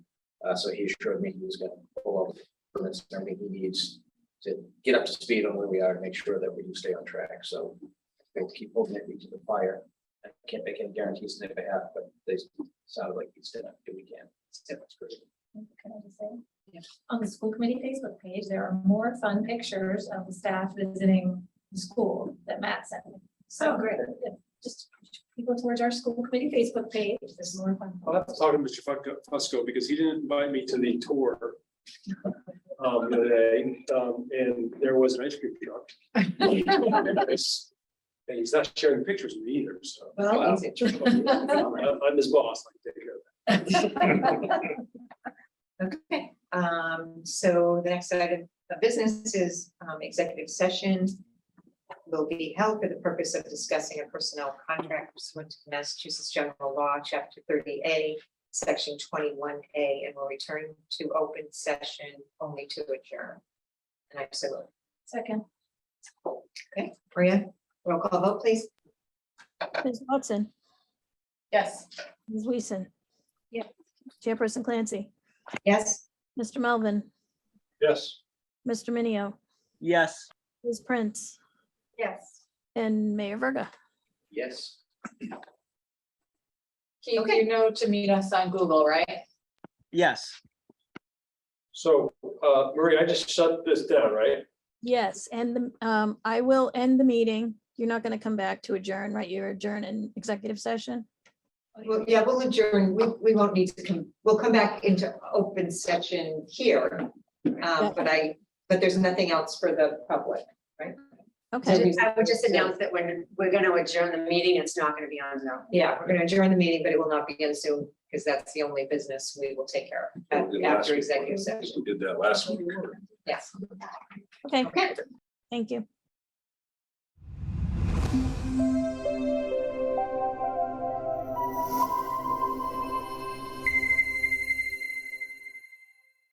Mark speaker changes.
Speaker 1: Uh, so he assured me he was gonna pull up permits and everything he needs to get up to speed on where we are and make sure that we do stay on track, so. We'll keep holding it to the fire. I can't make any guarantees on their behalf, but they sounded like he's gonna do what he can. It's him, it's great.
Speaker 2: Can I just say? On the school committee Facebook page, there are more fun pictures of the staff visiting the school that Matt sent me. So great. Just people towards our school committee Facebook page, there's more fun.
Speaker 3: I'll have to talk to Mr. Fusco- Fusco because he didn't invite me to the tour. Um, the other day, um, and there was an ice cream truck. And he's not sharing pictures with me either, so.
Speaker 4: Well, he's
Speaker 3: I'm I'm his boss, like, take care of it.
Speaker 4: Okay, um, so the next item of business is um, executive session. Will be held for the purpose of discussing a personnel contract pursuant to Massachusetts General Law, Chapter thirty A, Section twenty-one A, and will return to open session only to adjourn. And I so, moved.
Speaker 2: Second,
Speaker 4: okay, Maria, roll call vote, please.
Speaker 5: Ms. Watson,
Speaker 2: yes.
Speaker 5: Ms. Weason.
Speaker 2: Yeah.
Speaker 5: Chairperson Clancy,
Speaker 4: Yes,
Speaker 5: Mr. Melvin,
Speaker 3: Yes.
Speaker 5: Mr. Minio,
Speaker 6: Yes.
Speaker 5: Ms. Prince,
Speaker 2: Yes.
Speaker 5: and Mayor Verga.
Speaker 1: Yes.
Speaker 7: Keith,
Speaker 4: Okay.
Speaker 7: you know to meet us on Google, right?
Speaker 6: Yes.
Speaker 3: So, uh, Marie, I just shut this down, right?
Speaker 5: Yes, and the- um, I will end the meeting. You're not going to come back to adjourn, right? You're adjourned in executive session.
Speaker 4: well, yeah, we'll adjourn, we, we won't need to come, we'll come back into open session here. Um, but I, but there's nothing else for the public.
Speaker 5: Okay,
Speaker 8: I would just announce that when we're gonna adjourn the meeting, it's not gonna be on Zoom.
Speaker 4: Yeah, we're gonna adjourn the meeting, but it will not begin soon, because that's the only business we will take care of at- after executive session.
Speaker 9: We did that last week.
Speaker 4: Yes,
Speaker 5: okay,
Speaker 4: okay.
Speaker 5: thank you.